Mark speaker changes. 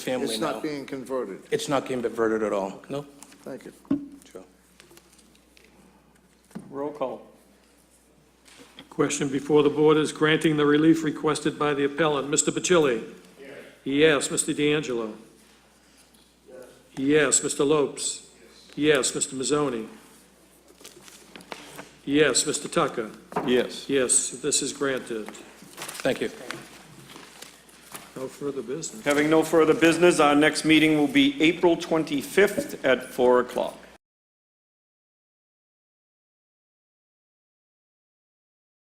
Speaker 1: family
Speaker 2: It's not
Speaker 1: now.
Speaker 2: being converted.
Speaker 1: It's not being diverted at all, no?
Speaker 2: Thank you.
Speaker 1: Sure.
Speaker 3: Roll call.
Speaker 4: Question before the board is granting the relief requested by the appellant. Mr. Bacilli? Yes. Mr. D'Angelo? Yes. Mr. Lopes? Yes. Mr. Mazzoni? Yes. Mr. Tucker?
Speaker 3: Yes.
Speaker 4: Yes, this is granted.
Speaker 1: Thank you.
Speaker 4: No further business.
Speaker 3: Having no further business, our next meeting will be April 25th at 4 o'clock.